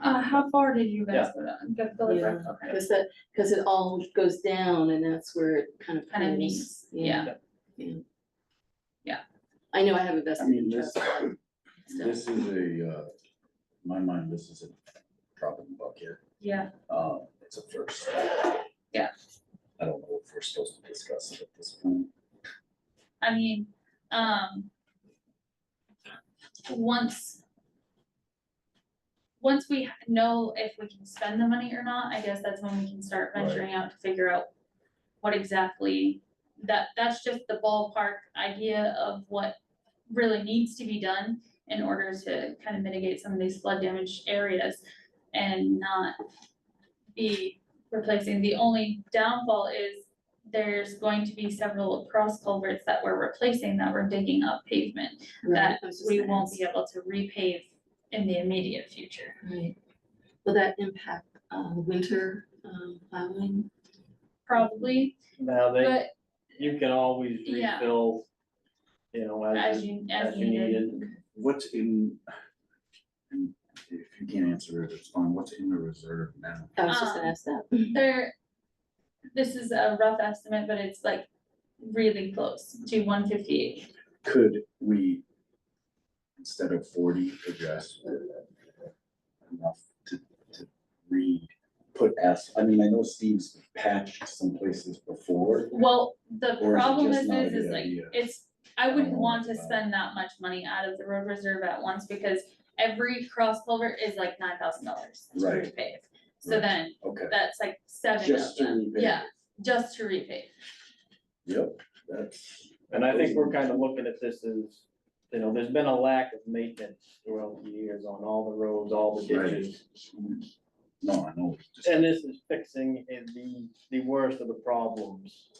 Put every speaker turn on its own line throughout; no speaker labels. Uh, how far did you guys
Yeah.
go down? Go- go the break, okay.
Cause that, cause it all goes down and that's where it kind of.
Kind of
pulls.
meets, yeah.
I know I have a
I
vested
mean,
interest.
this,
but still.
this is a, uh, in my mind, this is a drop in the bucket.
Yeah,
Uh, it's a first.
Yeah.
I don't know if we're supposed to discuss it at this point.
I mean, um. Once. Once we ha- know if we can spend the money or not, I guess that's when we can start
Right.
venturing out to figure out what exactly. That, that's just the ballpark idea of what really needs to be done in order to kind of mitigate some of these flood damage areas. And not be replacing, the only downfall is there's going to be several cross culverts that we're replacing that we're digging up pavement.
Right, I was just
We
gonna
won't
ask.
be able to repave in the immediate future.
Right. Will that impact, uh, winter, um, plowing?
Probably,
Now they,
but
you can always
Yeah.
refill, you know,
as
as,
you,
as you need it.
What's in, and if you can't answer it, it's fine. What's in the reserve now?
I was just gonna
Um,
ask that.
There, this is a rough estimate, but it's like really close to one fifty-eight.
Could we, instead of forty, address enough to, to read, put S, I mean, I know Steve's patched some places before.
Well, the
Or is it
problem
just
is,
not a
is, is
good
like,
idea?
it's, I wouldn't
Oh,
want to
wow.
spend that much money out of the road reserve at once because every cross culvert is like nine thousand dollars to
Right.
repave. So
Right.
then,
Okay.
that's like seven of
Just to
them,
repave.
yeah, just to repave,
Yep, that's,
And I think we're kind of looking at this as, you know, there's been a lack of maintenance throughout the years on all the roads, all the
Right.
ditches.
no, I know, it's just,
And this is fixing the, the worst of the problems,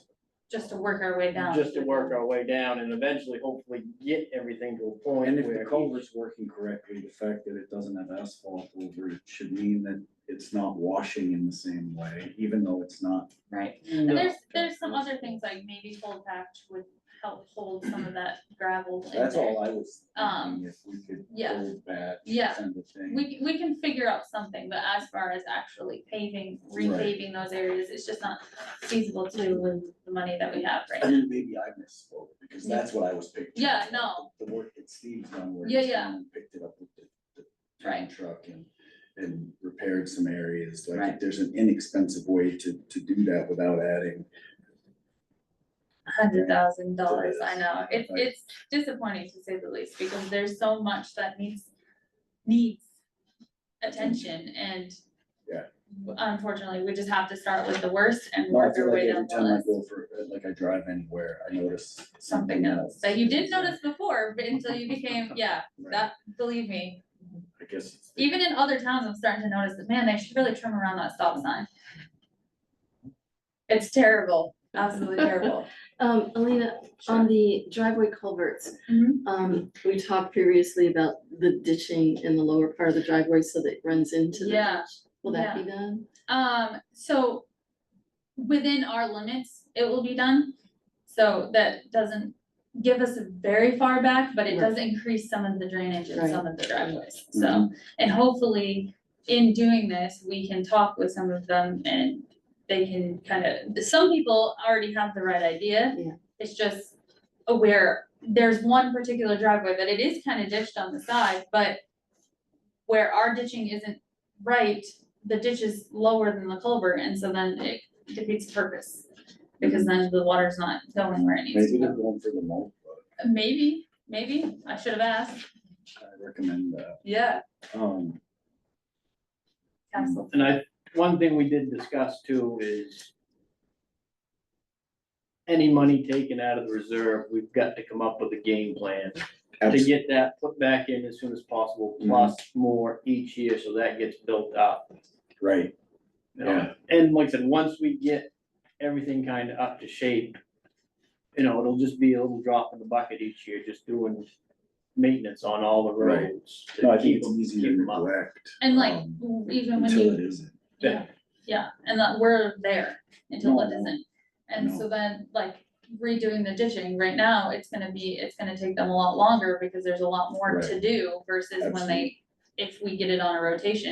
just to work our way down.
just to work our way down and eventually hopefully get everything to a point
and if
where
the culvert's working correctly, the fact that it doesn't have asphalt over it should mean that it's not washing in the same way, even though it's not.
Right,
No.
and there's, there's some other things like maybe cold patch would help hold some of that gravel in there.
That's all I was
Um,
thinking, if we could
yeah.
hold back,
Yeah.
kind of thing.
We, we can figure out something, but as far as actually paving,
Right.
repaving those areas, it's just not feasible to do with the money that we have right now.
And then maybe I misspoke, because that's what I was picturing.
Yeah, no.
The the work that Steve's done, where
Yeah,
he's
yeah.
gone and picked it up with the, the town
Right.
truck and, and repaired some areas, like,
Right.
if there's an inexpensive way to, to do that without adding.
Hundred thousand dollars, I
Yes.
know, it,
Right.
it's disappointing to say the least, because there's so much that needs, needs attention and.
Yeah.
Unfortunately, we just have to start with the worst and
No, I
work
feel
our
like
way down
every
the
time I
list,
go for, like, I drive anywhere, I notice
something else, that you did notice before, but until you became, yeah,
Right.
that, believe me.
I guess. it's the-
Even in other towns, I'm starting to notice that, man, they should really trim around that stop sign. It's terrible, absolutely terrible.
Um, Alina, on the driveway culverts,
Mhm.
um, we talked previously about the ditching in the lower part of the driveway so that it runs into the
Yeah,
ditch. Will that be done?
Um, so within our limits, it will be done. So that doesn't give us very far back, but it does increase some of the drainage and some of the driveways. So, and hopefully in doing this, we can talk with some of them and they can kind of, some people already have the right idea.
Yeah.
It's just aware, there's one particular driveway that it is kind of ditched on the side, but where our ditching isn't right, the ditch is lower than the culvert, and so then it defeats the purpose. Because then the water's not going where it needs
Maybe
to
they're
go.
going for the mulch, but
Maybe, maybe, I should have asked,
I recommend that,
yeah,
um,
absolutely,
And I, one thing we did discuss too is any money taken out of the reserve, we've got to come up with a game plan to
abs-
get that put back in as soon as possible,
Mhm.
plus more each year, so that gets built up.
right,
you know?
Yeah.
And like I said, once we get everything kind of up to shape, you know, it'll just be a little drop in the bucket each year, just doing maintenance on all the
Right.
roads. to
no, I think
keep
it's
them-
easy to
keep them up.
neglect.
and like,
um,
even when
Until
you,
it isn't.
yeah, yeah, and that we're there until it
No,
isn't. And
no.
so then, like, redoing the ditching, right now, it's gonna be, it's gonna take them a lot longer, because there's a lot more to do versus when they, if we get it on a rotation.